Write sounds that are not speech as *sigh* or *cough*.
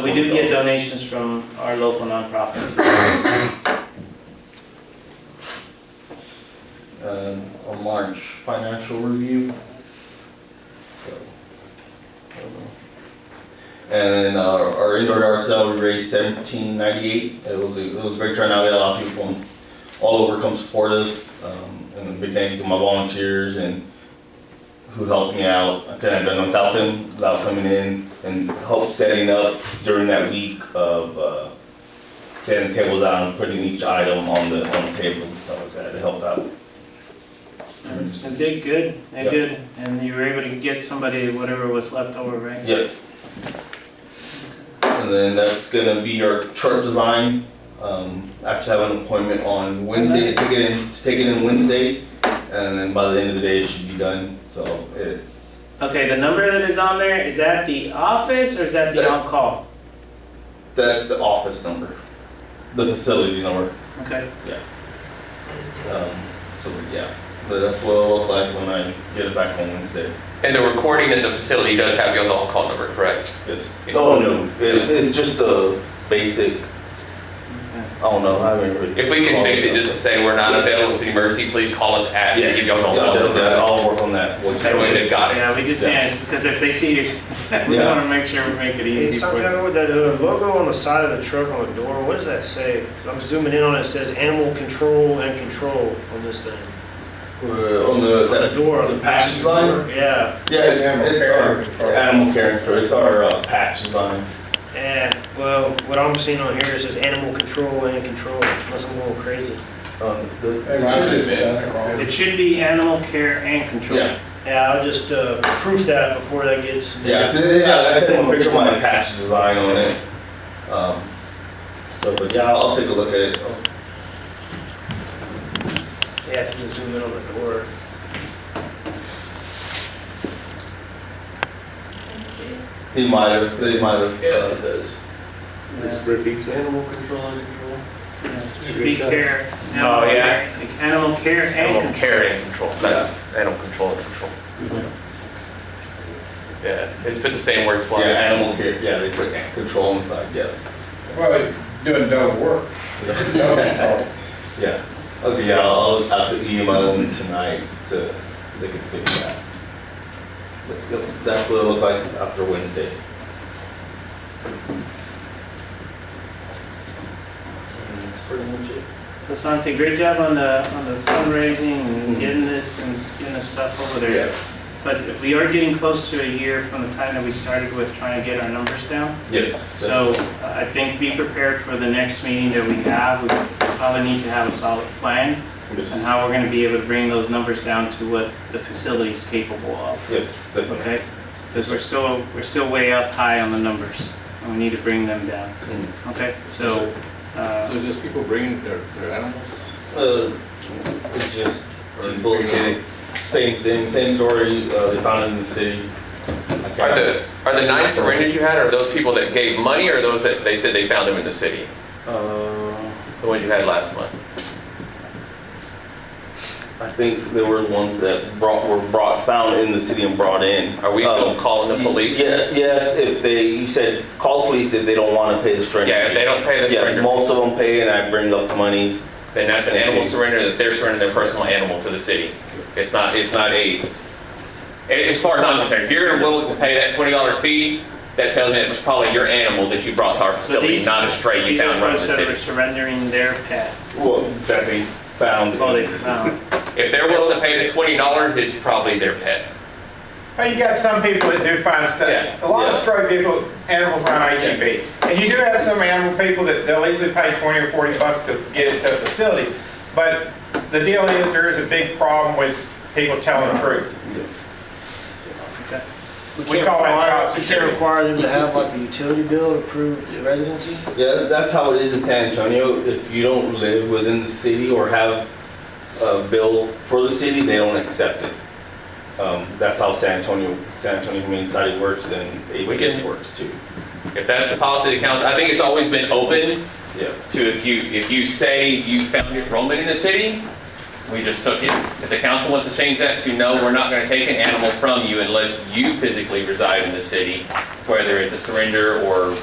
But We do get donations from our local nonprofits. um, on March financial review. So, I don't know. And uh, our indoor yard sale, we raised seventeen ninety-eight. It was, it was a great turnout. We had a lot of people from all over come support us. Um, And a big thank you to my volunteers and who helped me out. I couldn't have done it without them, without coming in and help setting up during that week of uh, setting tables out and putting each item on the, on the table and stuff like that. It helped out. They did good, they Yeah. did, and you were able to get somebody whatever was left over, right? Yep. And then that's gonna be our chart design. Um, I actually have an appointment on Wednesday, to take it in, to take it in Wednesday, and then by the end of the day, it should be done, so it's, Okay, the number that is on there, is that the office or is that the Yeah. on-call? that's the office number, the facility number. Okay, Um, so, yeah, but that's what it'll look like when I get it back on Wednesday. And the recording at the facility does have y'all's on-call number, correct? Yes. Oh, no, it, it's just a basic, I don't know, I haven't really. If we can fix it, just to say we're not available, it's an emergency, please call us at, and Yes, give yeah, y'all's on-call yeah, number. I'll work on that. We'll- That way they've got it. yeah, we just Yeah. did, because if they see you, *laughs* we Yeah. want to make sure we make it Hey, easy for you. Santiago, with that uh, logo on the side of the truck on the door, what does that say? 'Cause I'm zooming in on it, it says animal control and control on this thing. Uh, on the, The that, door, the the patch design? Yeah, Yeah, it's, it's our animal character, it's our uh, patch design. and, well, what I'm seeing on here, it says animal control and control, unless I'm going crazy. Um, the- It should be animal care and control. Yeah, Yeah, I'll just uh, proof that before that gets. yeah, yeah, I sent him a picture of my patch design on it. Um, so, but yeah, I'll I'll take a look at it. Yeah, if you just zoom in on the door. He might have, they might have. uh, does. Yeah. repeats animal control and control. Should Be care. Oh, animal yeah. care, like Animal care and Animal control. care and control, not animal control and control. Yeah, it's been the same word Yeah, twice. animal care, yeah, they put control inside, yes. Well, they're doing double *laughs* work. *laughs* Double work. Yeah, okay, yeah, I'll, I'll have to email them tonight to, they can fix that. But, yep, That's what it looks like after Wednesday. And that's pretty much it. So Santi, great job on the, on the fundraising and Mm-hmm. Mhm. getting this and getting the stuff over there. Yeah, But we are getting close to a year from the time that we started with trying to get our numbers down. yes. So uh, I think be prepared for the next meeting that we have. We probably need to have a solid plan on Yes, how we're going to be able to bring those numbers down to what the facility is capable of, yes, definitely. okay? Because we're still, we're still way up high on the numbers, and we need to bring them down, Mm. okay? So, uh, So just people bringing their, their animals? Uh, it's just, people say, same thing, same story, uh, they found it in the city. I Are can't- the, are the nine surrenders you had, are those people that gave money, or those that they said they found them in the city? Uh, The ones you had last month? I think they were the ones that brought, were brought, found in the city and brought in. Are we still Um, calling the police? Yeah, yes, if they, you said, call the police if they don't want to pay the surrender. Yeah, if they don't pay the fee. Yeah, surrender, most of them pay and I bring up the money. then that's an animal surrender, that they're surrendering their personal animal to the city. It's not, it's not a, a- as far as I'm concerned, if you're willing to pay that twenty dollar fee, that tells me it was probably your animal that you brought to our so facility, these... not a stray you these are found running folks the that are city. surrendering their pet. Well, that they found. Oh, they found. If they're willing to pay the twenty dollars, it's probably their pet. But you got some people that do find Yeah, stuff. A lot of yeah. stray people, animals on IGB. And you do have some animal people that they'll easily pay 20 or 40 bucks to get it to a facility. But the deal is, there is a big problem with people telling the truth. Okay. We call that job We can't security. require them to have like a utility bill to prove residency? Yeah, that's how it is in San Antonio. If you don't live within the city or have a bill for the city, they don't accept it. Um, that's how San Antonio, San Antonio Community Society works and We get- ACS works too. If that's the policy of the council, I think it's always been open Yeah. to if you, if you say you found enrollment in the city, we just took it. If the council wants to change that to no, we're not gonna take an animal from you unless you physically reside in the city, whether it's a surrender or